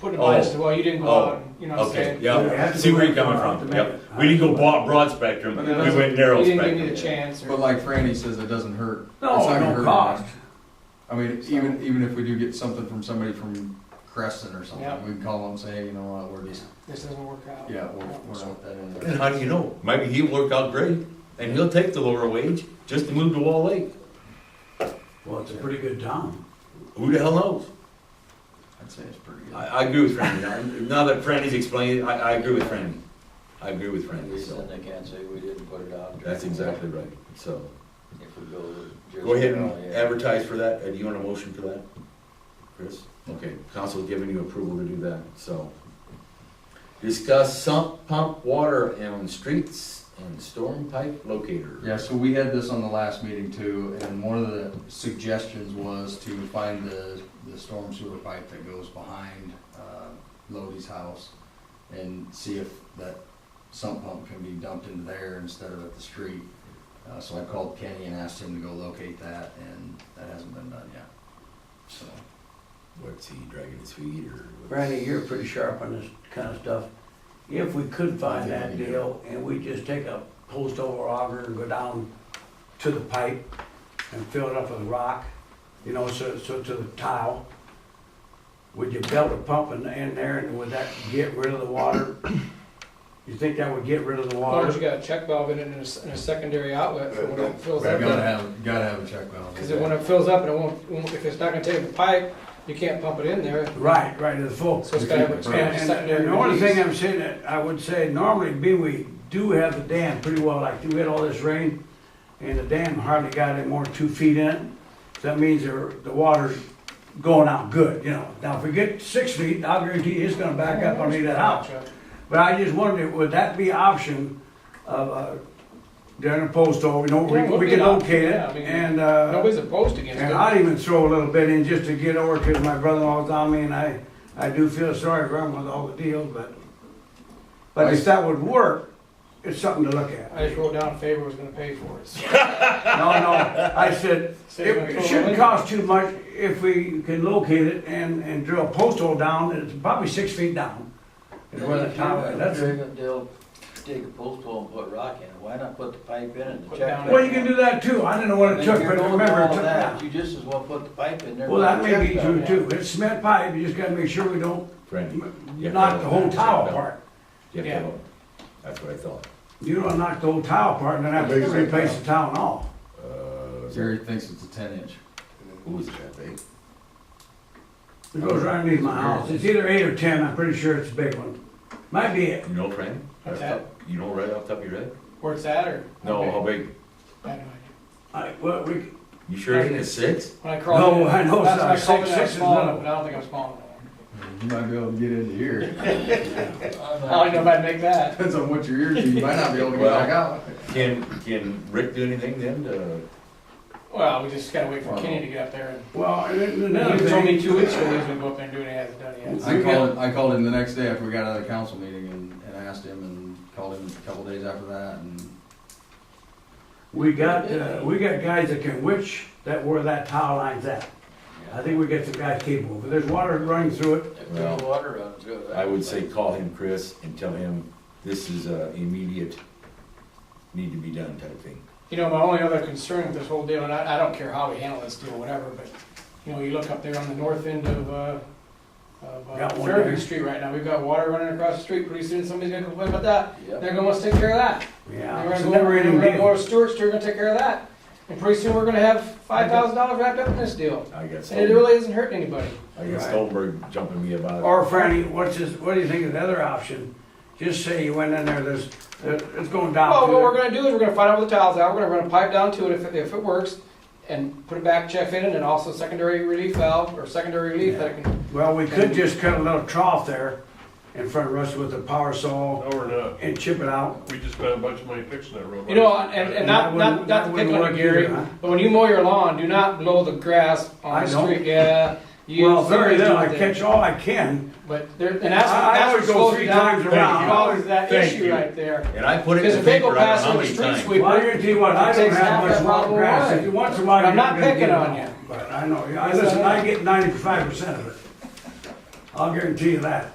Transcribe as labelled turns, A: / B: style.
A: put it by us,
B: Oh.
A: well, you didn't go
B: Oh.
A: out, and you know what I'm
B: Okay,
A: saying?
C: You
B: yeah,
C: have to
B: see where you're
C: go
B: coming
C: out
B: from,
C: to
B: yeah.
C: make it.
B: We didn't go broad, broad spectrum,
A: But
B: we
A: that doesn't-
B: went narrow
A: You didn't give me
B: spectrum.
A: the chance,
D: But
A: or,
D: like Franny says, it doesn't hurt. It's not
B: Oh,
C: No,
D: gonna hurt
C: no
D: much.
C: cost.
D: I mean, even, even if we do get something from somebody from Creston or
A: Yeah.
D: something, we can call them and say, you know what, we're just,
A: this doesn't work out.
D: yeah, we're, we're not that in
B: And
D: there.
B: how do you know? Maybe he'll work out great, and he'll take the lower wage just to move to Wall Lake.
C: Well, it's a pretty good town.
B: Who the hell knows?
D: I'd say it's pretty
B: I,
D: good.
B: I agree with Franny. Now- Now that Franny's explained it, I, I agree with Franny. I agree with Franny, so,
E: Reason they can't say we didn't put it out.
B: that's exactly right, so.
E: If we go with Jersey
B: Go ahead
E: Valley,
B: and
E: yeah.
B: advertise for that, Uh, do you want a motion for that? Chris? Okay, council giving you approval to do that, so. Discuss sump pump water on streets and storm pipe locator.
D: Yeah, so we had this on the last meeting too, and one of the suggestions was to find the, the storm sewer pipe that goes behind, uh, Lodi's house and see if that sump pump can be dumped into there instead of at the street. Uh, so I called Kenny and asked him to go locate that, and that hasn't been done yet, so.
B: What's he dragging his feet or?
C: Randy, you're pretty sharp on this kind of stuff. If we could find that deal and we just take a post over auger and go down to the pipe and fill it up with rock, you know, so, so to the tile, would you belt a pump in, in there and would that get rid of the water? You think that would get rid of the
A: As long as
C: water?
A: you got a check valve in it and a, s- and a secondary outlet for when it fills
D: Gotta
A: up.
D: have, gotta have a check valve.
A: Because when it fills up and it won't, won't- if it's not gonna take the pipe, you can't pump it in there,
C: Right, right, to the full.
A: so it's gotta have a
C: And,
A: expanded
C: and-
A: secondary
C: and the only thing
A: release.
C: I'm saying, that I would say normally, being we do have the dam pretty well, like we had all this rain, and the dam hardly got any more than two feet in it. So That means there, the water's going out good, you know. Now, if we get six feet, I guarantee you it's gonna back up underneath that house. But I just wondered, would that be option of, uh, during the post over, you know, we,
A: Yeah, it would
C: we
A: be
C: can
A: an option,
C: locate it
A: yeah, I mean,
C: and, uh.
A: Nobody's opposed against
C: And
A: it.
C: I'd even throw a little bit in just to get over, because my brother-in-law's on me, and I, I do feel sorry for him with all the deals, but, but if that would work, it's something to look at.
A: I just wrote down Faber was gonna pay for it. so.
C: No, no, I said,
A: So you're
C: it
A: gonna throw
C: it shouldn't
A: in?
C: cost too much if we can locate it and, and drill a post hole down, it's probably six feet down. Is where the top, that's,
E: They'll dig a post hole and put rock in it, why not put the pipe in and the
A: Put
E: check?
A: down
C: well, you can do that too, I didn't know what it
E: If
C: took,
E: you're
C: but
E: going
C: remember,
E: all
C: it took
E: that,
C: that.
E: You just as well put the pipe in there.
C: Well, that may be
E: Check
C: true
E: valve.
C: too, it's cement pipe, you just gotta make sure we don't
B: Franny? Yeah.
C: knock the whole tile apart.
B: Yeah,
A: Yeah.
B: well, that's what I thought.
C: You don't knock the whole tile apart and then have to replace the tile and all.
B: Uh,
D: Jerry thinks it's a ten inch.
B: who was that big?
C: It goes right underneath my house. It's either eight or ten, I'm pretty sure it's a big one. Might be it.
B: You know, Franny?
A: What's
B: Right off- You know right off the top of your head?
A: Where it's at, or?
B: No, uh, how big?
A: I had no idea.
C: I, well, we,
B: You sure it isn't a six?
A: When I crawled in.
C: No, I know
A: last
C: it's
A: time I crawled in,
C: not.
A: I was
C: Six- six is
A: small,
C: little.
A: but I don't think I'm small enough.
D: You might be able to get into here.
A: I don't even know if I'd make that.
D: Depends on what your ears do, you might not be able to get
B: Well-
D: back out.
B: Can, can Rick do anything then to?
A: Well, we just gotta wait for
D: Wow.
A: Kenny to get up there. and-
C: well, and then another
A: He told me
C: thing,
A: two weeks ago he was gonna go up there and do it, and he hasn't done it yet. so-
D: I called, I called him the next day after we got out of the council meeting and, and asked him and called him a couple days after that and.
C: we got, uh, we got guys that can witch that where that tile line's at. I think we got some guys capable. If there's water running through it,
E: If there's water runs good.
B: I would say call him, Chris, and tell him this is a immediate, need to be done type thing.
A: You know, my only other concern with this whole deal, and I, I don't care how we handle this deal, whatever, but, you know, you look up there on the north end of, uh, of uh,
C: Got one
A: Fairview
C: there.
A: Street right now, we've got water running across the street, pretty soon somebody's gonna complain about that,
E: Yep.
A: they're gonna want to take care of that.
C: yeah,
A: They're
C: it's
A: gonna
C: a
A: go,
C: never
A: they're
C: ending
A: gonna go
C: deal.
A: to Stewart's, they're gonna take care of that, and pretty soon we're gonna have five thousand dollars wrapped up in this deal,
B: I got
A: and it
B: Stoltenberg,
A: really isn't hurting anybody.
B: I got Stoltenberg jumping me about
C: Or Franny, what's this, what do you think of the other option? Just say you went in there, there's, uh, it's going down.
A: Well,
C: to
A: what
C: the-
A: we're gonna do is we're gonna find out where the tile's out, we're gonna run a pipe down to it if, if it works, and put it back, check in, and then also secondary relief valve, or secondary relief that it can,
C: Well, we could just cut a little trough there in front of us with a power saw
F: No, we're not.
C: and chip it out.
F: We just spent a bunch of money fixing that road.
A: you know, and, and not, not,
C: That wouldn't-
A: not to
C: that
A: pick
C: wouldn't
A: on you,
C: work
A: Gary,
C: either, huh?
A: but when you mow your lawn, do not blow the grass on
C: I
A: the
C: don't.
A: street, yeah. you-
C: Well, very little, I
A: somebody's doing
C: catch all I can.
A: that. But there, and that's,
C: I- I
A: that's what
C: always go
A: slows
C: three
A: you down,
C: times around.
A: causes that
B: Thank
A: issue
B: you.
A: right there.
B: it. And I put it
A: Because
B: in the
A: if they go
B: paper, I
A: past
B: don't know how
A: on the
B: many
A: street
B: times.
A: sweeper.
C: Well, I guarantee you what, I
A: It takes
C: don't have
A: half
C: much
A: that
C: wild
A: problem
C: grass.
A: away.
C: If you want some
A: I'm
C: out, you're
A: not
C: gonna
A: picking
C: get
A: on
C: it.
A: you.
C: But I know, I, listen, I get ninety-five percent of it. I'll guarantee you that.